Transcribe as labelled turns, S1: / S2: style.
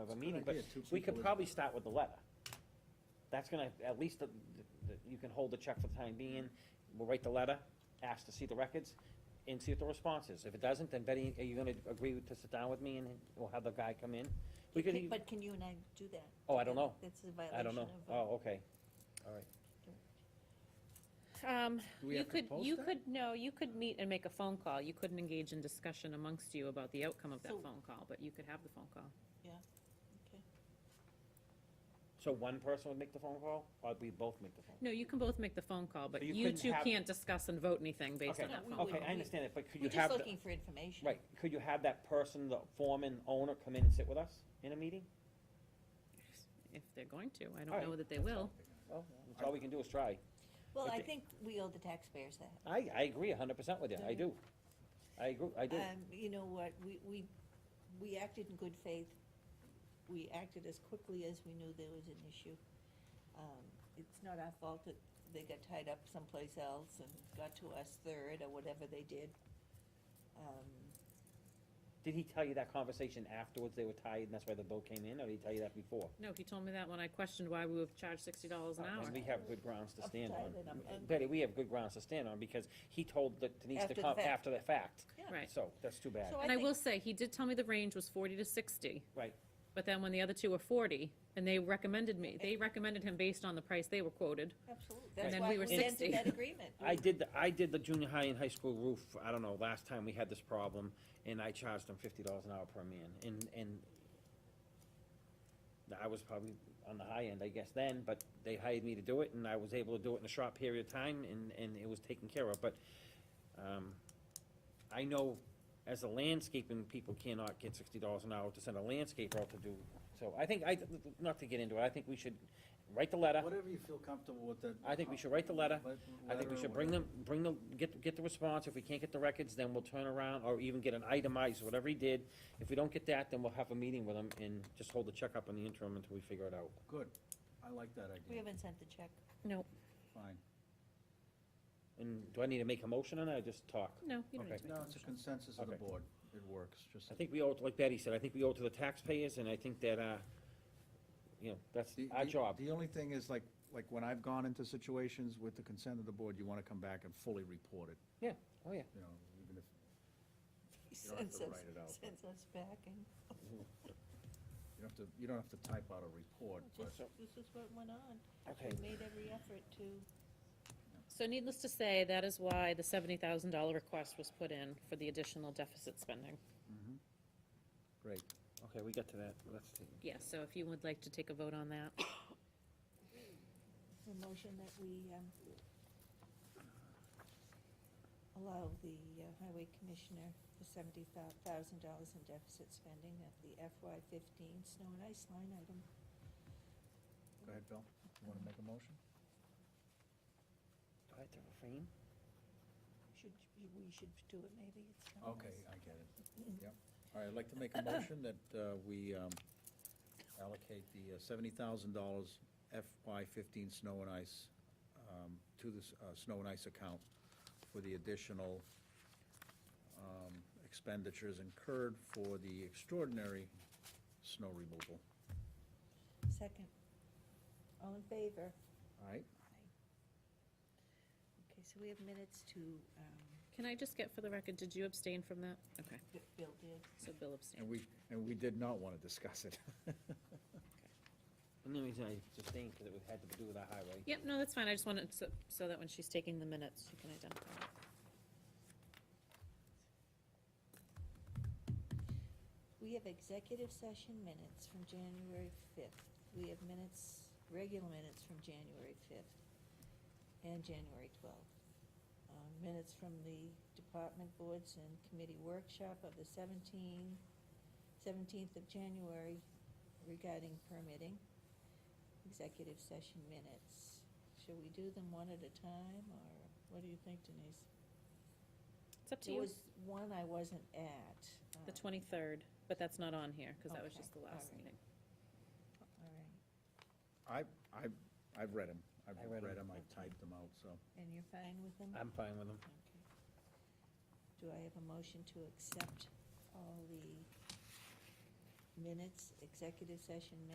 S1: of a
S2: It's a good
S1: meeting, but
S2: idea, two
S1: we could
S2: people.
S1: probably start with the letter. That's gonna, at least, the- the- you can hold the check for the time being, we'll write the letter, ask to see the records, and see what the response is. If it doesn't, then Betty, are you gonna agree to sit down with me and we'll have the guy come in? We could,
S3: Can-
S1: e-
S3: But can you and I do that?
S1: Oh, I don't know.
S3: That's a
S1: I don't
S3: violation
S1: know,
S3: of. uh,
S1: oh, okay.
S4: Um,
S2: Do we
S4: you
S2: have to
S4: could,
S2: post
S4: you
S2: that?
S4: could, no, you could meet and make a phone call. You couldn't engage in discussion amongst you about the outcome of that
S3: So-
S4: phone call, but you could have the phone call.
S1: So one person would make the phone call, or we both make the phone?
S4: No, you can both make the phone call, but
S1: you
S4: you
S1: couldn't
S4: two
S1: have-
S4: can't discuss and vote anything based
S1: Okay,
S4: on that
S3: No, we
S4: phone
S3: wouldn't.
S4: call.
S1: Okay, I understand it, but could you
S3: We're
S1: have?
S3: just
S1: the-
S3: looking for information.
S1: Right, could you have that person, the foreman, owner, come in and sit with us in a meeting?
S4: If they're going to, I
S1: All
S4: don't
S1: right.
S4: know that they will.
S1: Well, that's all we can do is try.
S3: Well, I
S1: Okay.
S3: think we owe the taxpayers that.
S1: I, I agree a hundred percent with you, I do. I agree, I do.
S3: Um, you know what, we, we, we acted in good faith. We acted as quickly as we knew there was an issue. Um, It's not our fault that they got tied up someplace else and got to us third or whatever they did. Um,
S1: Did he tell you that conversation afterwards, they were tired and that's why the bill came in, or did he tell you that before?
S4: No, he told me that when I questioned why we were charged sixty dollars an
S1: Uh,
S4: hour.
S1: and We have good grounds to
S3: I'm
S1: stand
S3: tired
S1: on.
S3: and I'm angry.
S1: Betty, we have good grounds to stand on because he told the- Denise to
S3: After the
S1: come
S3: fact.
S1: after the fact.
S3: Yeah.
S4: Right.
S1: So, that's too bad.
S3: So
S4: And I
S3: think-
S4: will say, he did tell me the range was forty to sixty.
S1: Right.
S4: But then when the other two were forty, and they recommended me, they recommended him based on the price they were quoted.
S3: Absolutely,
S4: And
S3: that's
S4: then
S3: why
S4: we were
S3: we entered
S4: 60.
S3: that agreement.
S1: I did, the I did the junior high and high school roof, I don't know, last time we had this problem, and I charged them fifty dollars an hour per man, and, and I was probably on the high end, I guess, then, but they hired me to do it, and I was able to do it in a short period of time, and, and it was taken care of, but, um, I know as a landscaping, people cannot get sixty dollars an hour to send a landscaper out to do, so I think, I, not to get into it, I think we should write the letter.
S2: Whatever you feel comfortable with that.
S1: uh, I think we should write the letter.
S2: Let-
S1: I think we
S2: letter,
S1: should bring
S2: whatever.
S1: them, bring the, get, get the response, if we can't get the records, then we'll turn around, or even get an itemized, whatever he did. If we don't get that, then we'll have a meeting with him and just hold the check up on the interim until we figure it out.
S2: Good, I like that
S3: We
S2: idea,
S3: haven't sent the check.
S4: No,
S2: fine.
S1: And do I need to make a motion on it, or just talk?
S4: no, you don't need
S1: Okay.
S4: to make a
S2: No, it's a
S4: motion.
S2: consensus of the
S1: Okay.
S2: board, it works, just.
S1: I think we owe, it- like Betty said, I think we owe it to the taxpayers, and I think that, uh, you know, that's
S2: The-
S1: our
S2: the-
S1: job.
S2: The only thing is like, like when I've gone into situations with the consent of the board, you wanna come back and fully report it,
S1: Yeah, oh, yeah.
S2: you know, even if,
S3: He
S2: You don't have
S3: sends
S2: to
S3: us,
S2: write it out, but-
S3: sends us back and,
S2: you don't have to, you don't have to type out a report, but
S3: just, this is what went on.
S1: Okay,
S3: We made every effort to,
S4: So needless to say, that is why the seventy thousand dollar request was put in for the additional deficit spending.
S2: great.
S1: okay, we got to that, let's see.
S4: Yes, so if you would like to take a vote on that.
S3: the motion that we, um, allow the uh, highway commissioner the seventy thousand dollars in deficit spending of the FY fifteen snow and ice line item.
S2: Go ahead, Bill, you wanna make a motion?
S1: Do I have to refrain?
S3: Should, we should do it maybe, it's not us.
S2: Okay, I get it, yep. All right, I'd like to make a motion that uh, we um, allocate the uh, $70,000 FY15 snow and ice um, to the s- uh, snow and ice account for the additional um, expenditures incurred for the extraordinary snow removal.
S3: Second. All in favor?
S2: All right?
S3: Okay, so we have minutes to, um,
S4: Can I just get for the record, did you abstain from that? Okay,
S3: that Bill did.
S4: so Bill abstained.
S2: And we, and we did not want to discuss it.
S1: And the reason I sustained, because it had to do with our highway.
S4: Yep, no, that's fine. I just wanted, so, so that when she's taking the minutes, she can identify. it.
S3: We have executive session minutes from January fifth. We have minutes, regular minutes from January fifth and January twelfth. Um, Minutes from the department boards and committee workshop of the 17th, 17th of January regarding permitting. Executive session minutes. Should we do them one at a time, or what do you think, Denise?
S4: It's up to
S3: There
S4: you.
S3: was one I wasn't at.
S4: The
S3: um,
S4: twenty-third, but that's not on here, because that was
S3: Okay,
S4: just the last
S3: all right.
S4: meeting.
S3: All right.
S2: I, I, I've read them. I've
S1: I read 'em.
S2: read them, I've typed them out, so.
S3: And you're fine with them?
S1: I'm fine with them.
S3: Okay. Do I have a motion to accept all the minutes, executive session minutes